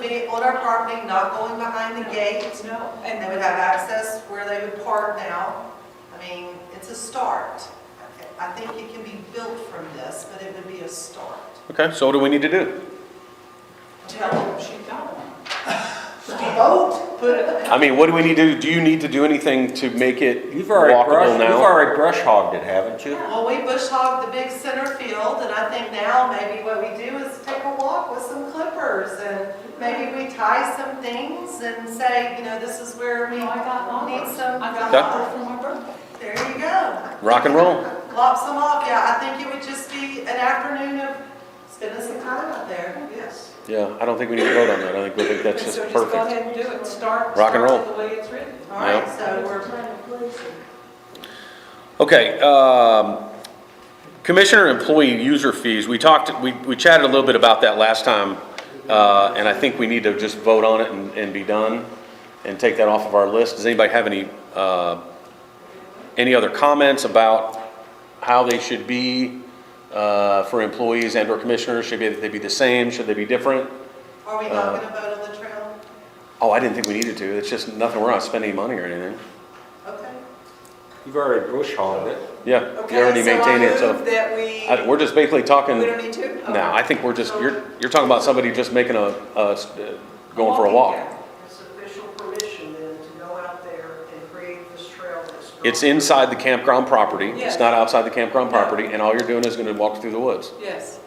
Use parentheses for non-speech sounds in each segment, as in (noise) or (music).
it on our property, not going behind the gate. No, And and they would have access where they would park now. I mean, it's a start. I think it can be built from this, but it would be a start. Okay, so what do we need to do? tell them she's got one. Vote, put it, I mean, what do we need to, do you need to do anything to make it You've already brush, walkable you've now? already brush hogged it, haven't you? well, we bush hogged the big center field, and I think now maybe what we do is take a walk with some clippers, and maybe we tie some things and say, you know, this is where we No, I got need mine. some. I got Okay. mine for my birthday. There you go. Rock and roll. Lop some off, yeah, I think it would just be an afternoon of spending some time out there, yes. Yeah, I don't think we need to vote on that. I think, we think that's And just so just go perfect. ahead and do it, start, Rock start and it the way it's written. All right, Yep. so we're Okay, um, commissioner employee user fees, we talked, we, we chatted a little bit about that last time. Uh, and I think we need to just vote on it and, and be done and take that off of our list. Does anybody have any, uh, any other comments about how they should be, uh, for employees and or commissioners? Should they, they be the same? Should they be different? Are we Uh, not gonna vote on the trail? Oh, I didn't think we needed to. It's just nothing, we're not spending any money or anything. Okay. You've already brush hogged it. Yeah, you already maintained it, so. that I- we, We're just basically talking. we don't need to? Okay. No, I think we're just, you're, you're talking about somebody just making a, a s- uh, going for a walk. It's official permission then to go out there and create this trail that's. It's inside the campground property, it's Yes. not outside the campground property, and all you're doing is gonna walk through the woods. Yes.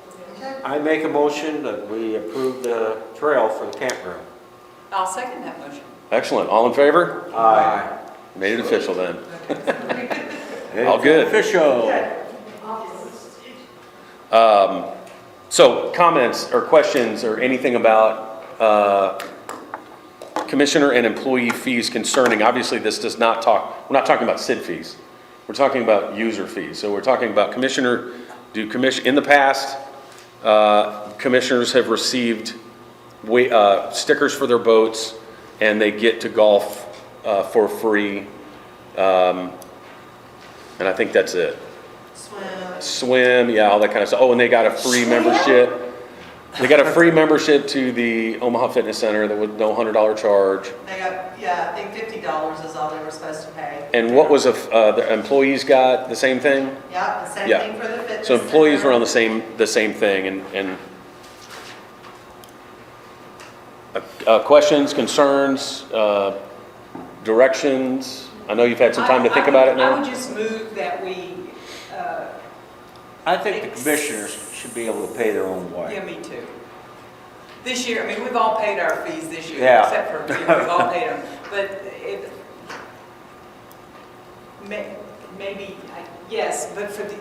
I make a motion that we approve the trail for the campground. I'll second that motion. Excellent, all in favor? Aye. Made it official then. All good. Official. Um, so comments or questions or anything about, uh, commissioner and employee fees concerning, obviously this does not talk, we're not talking about SID fees. We're talking about user fees. So we're talking about commissioner, do commission, in the past, uh, commissioners have received wa, uh, stickers for their boats and they get to golf, uh, for free. Um, and I think that's it Swim. swim, yeah, all that kind of stuff. Oh, and they got a free membership. They got a free membership to the Omaha Fitness Center that was no hundred dollar charge. They got, yeah, I think fifty dollars is all they were supposed to pay. And what was a, f- uh, the employees got the same thing? Yeah, the same Yeah. thing for the fitness. So employees were on the center. same, the same thing and, and Uh, uh, questions, concerns, uh, directions? I know you've had some time to I- think I about would- it I would now. just move that we, uh, I think the commissioners should be able to pay their own way. yeah, me too. This year, I mean, we've all paid our fees this year, Yeah. except for, you know, we've all paid (laughs) them. But it, may, maybe, I- yes, but for the,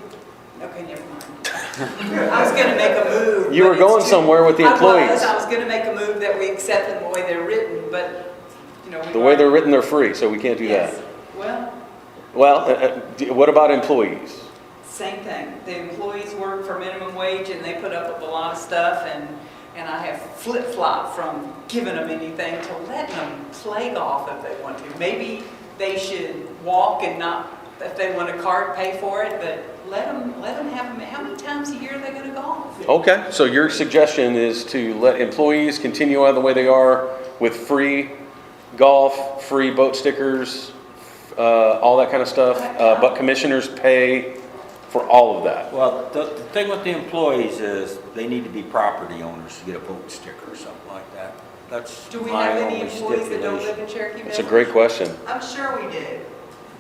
okay, never (laughs) mind. I was gonna make a move. You but were it's going too- somewhere with the I was, employees. I was gonna make a move that we accept them the way they're written, but, you know. we've The way they're already- written, they're free, so we can't do Yes. that. Well, Well, uh, uh, d- what about employees? Same thing. The employees work for minimum wage and they put up with a lot of stuff and, and I have flip-flop from giving them anything to letting them play golf if they want to. Maybe they should walk and not, if they want a cart, pay for it, but let them, let them have, how many times a year are they gonna golf? Okay, so your suggestion is to let employees continue on the way they are with free golf, free boat stickers, uh, all that kind of stuff, uh, but commissioners pay for all of that. Well, the, the thing with the employees is they need to be property owners to get a vote sticker or something like that. That's Do we my have any only employees that don't live stipulation. in Cherokee Village? That's a great question. I'm sure we do.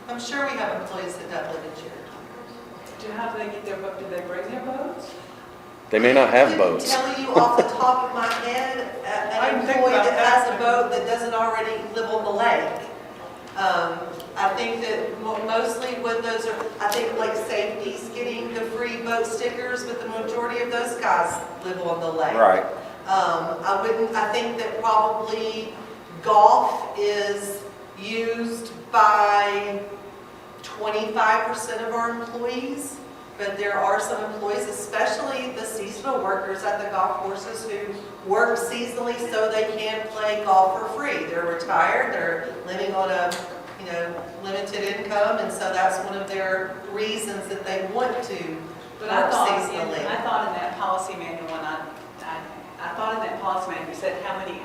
I'm sure we have employees that don't live in Cherokee. Do, how do they get their boat? Do they bring their boats? They may not have boats. I couldn't tell you off the top of my head, a- I an didn't think employee about that that. has a boat that doesn't already live on the lake. Um, I think that mo- mostly when those are, I think like safety's getting the free boat stickers, but the majority of those guys live on the lake. Right. Um, I wouldn't, I think that probably golf is used by twenty-five percent of our employees, but there are some employees, especially the seasonal workers at the golf courses who work seasonally so they can play golf for free. They're retired, they're living on a, you know, limited income, and so that's one of their reasons that they want to But I work thought, in- I seasonally. thought in that policy manual, and I, I, I thought in that policy manual, you said how many